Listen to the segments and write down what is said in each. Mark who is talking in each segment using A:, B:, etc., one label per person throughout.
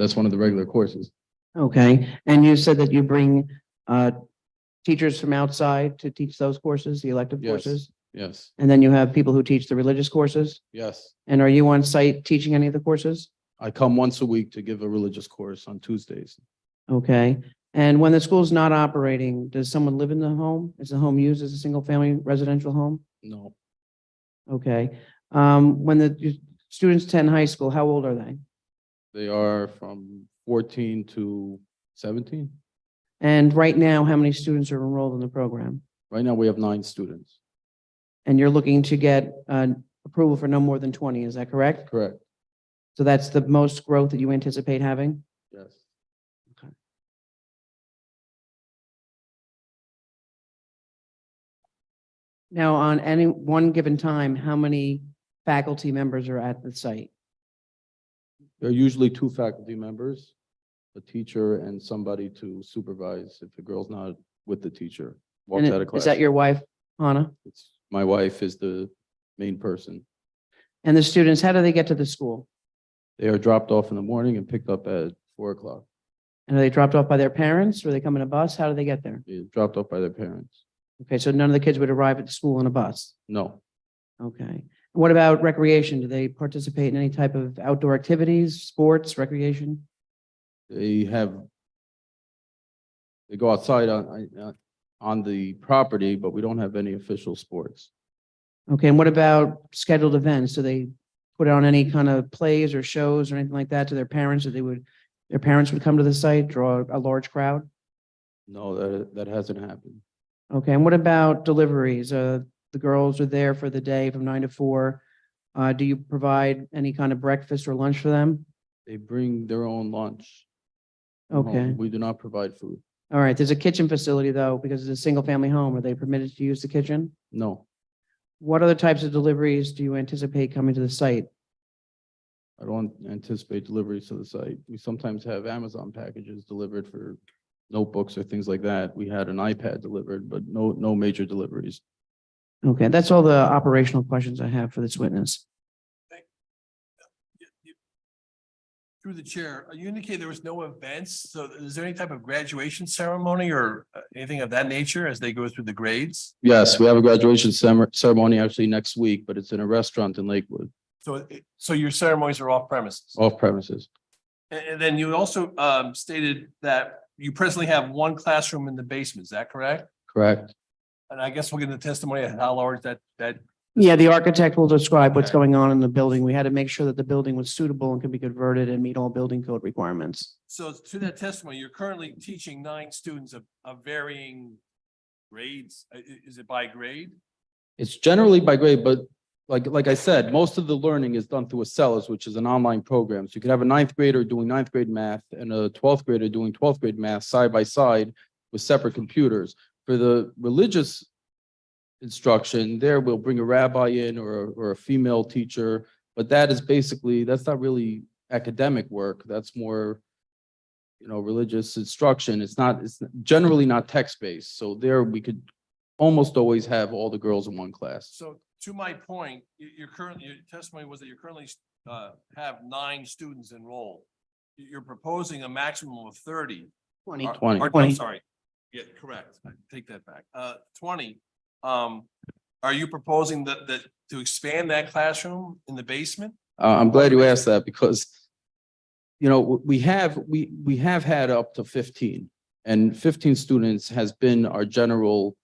A: That's one of the regular courses.
B: Okay, and you said that you bring uh teachers from outside to teach those courses, the elective
A: Yes.
B: courses?
A: Yes,
B: And then you have people who teach the religious courses?
A: yes.
B: And are you on site teaching any of the courses?
A: I come once a week to give a religious course on Tuesdays.
B: Okay, and when the school's not operating, does someone live in the home? Is the home used as a single-family residential home?
A: No,
B: Okay, um, when the you- students attend high school, how old are they?
A: they are from fourteen to seventeen.
B: And right now, how many students are enrolled in the program?
A: Right now, we have nine students.
B: And you're looking to get uh approval for no more than twenty, is that correct?
A: Correct,
B: So that's the most growth that you anticipate having?
A: yes.
B: Now, on any one given time, how many faculty members are at the site?
A: There are usually two faculty members, a teacher and somebody to supervise if the girl's not with the teacher.
B: And
A: Walks out of class.
B: Is that your wife, Hannah?
A: It's- My wife is the main person.
B: And the students, how do they get to the school?
A: They are dropped off in the morning and picked up at four o'clock.
B: And are they dropped off by their parents? Or they come in a bus? How do they get there?
A: They're dropped off by their parents.
B: Okay, so none of the kids would arrive at the school in a bus?
A: No,
B: Okay. What about recreation? Do they participate in any type of outdoor activities, sports, recreation?
A: they have. They go outside on, on- on the property, but we don't have any official sports.
B: Okay, and what about scheduled events? Do they put on any kind of plays or shows or anything like that to their parents that they would, their parents would come to the site, draw a large crowd?
A: No, that, that hasn't happened.
B: Okay, and what about deliveries? Uh, the girls are there for the day from nine to four. Uh, do you provide any kind of breakfast or lunch for them?
A: They bring their own lunch. from home.
B: Okay,
A: We do not provide food.
B: all right. There's a kitchen facility though, because it's a single family home. Are they permitted to use the kitchen?
A: No,
B: What other types of deliveries do you anticipate coming to the site?
A: I don't anticipate deliveries to the site. We sometimes have Amazon packages delivered for notebooks or things like that. We had an iPad delivered, but no, no major deliveries.
B: Okay, that's all the operational questions I have for this witness.
C: you- you- Through the chair, uh, you indicated there was no events, so is there any type of graduation ceremony or uh, anything of that nature as they go through the grades?
A: Yes, we have a graduation cemer- ceremony actually next week, but it's in a restaurant in Lakewood,
C: So, it- so your ceremonies are off premises?
A: off premises.
C: And, and then you also um stated that you presently have one classroom in the basement, is that correct?
A: Correct.
C: And I guess we'll get the testimony of how large that, that,
B: Yeah, the architect will describe what's
C: Okay.
B: going on in the building. We had to make sure that the building was suitable and could be converted and meet all building code requirements.
C: so to that testimony, you're currently teaching nine students of, of varying grades. I- i- is it by grade?
A: It's generally by grade, but like, like I said, most of the learning is done through Accelis, which is an online program. So you could have a ninth grader doing ninth grade math and a twelfth grader doing twelfth grade math side by side with separate computers. For the religious instruction, there we'll bring a rabbi in or, a- or a female teacher. But that is basically, that's not really academic work. That's more, you know, religious instruction. It's not, it's generally not text-based. So there we could almost always have all the girls in one class.
C: So to my point, you, you're currently, your testimony was that you're currently, uh, have nine students enrolled. You- You're proposing a maximum of thirty.
B: Twenty.
C: Or-
A: Twenty.
C: or- I'm
B: Twenty.
C: Sorry, yeah, correct. I Take that back. Uh, twenty. Um, are you proposing that, that, to expand that classroom in the basement?
A: Uh, I'm glad you asked that because, you know, w- we have, we, we have had up to fifteen. And fifteen students has been our general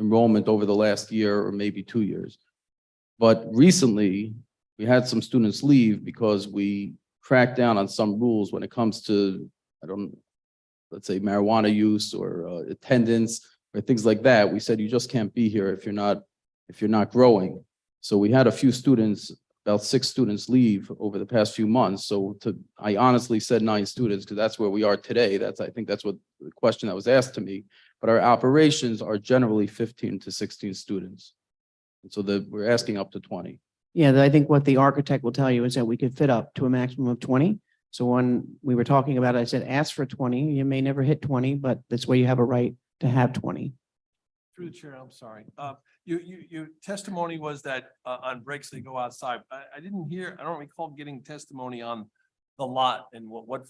A: enrollment over the last year or maybe two years. But recently, we had some students leave because we cracked down on some rules when it comes to, I don't, let's say marijuana use or uh, attendance or things like that. We said you just can't be here if you're not, if you're not growing. So we had a few students about six students leave over the past few months. So to, I honestly said nine students because that's where we are today. That's, I think that's what the question that was asked to me. But our operations are generally fifteen to sixteen students. And so the, we're asking up to twenty.
B: Yeah, I think what the architect will tell you is that we could fit up to a maximum of twenty. So when we were talking about, it, I said, ask for twenty. You may never hit twenty, but that's where you have a right to have twenty.
C: Through the chair, I'm sorry. Uh, you, you, your testimony was that, uh, on breaks they go outside. I, I didn't hear, I don't recall getting testimony on the lot and what, what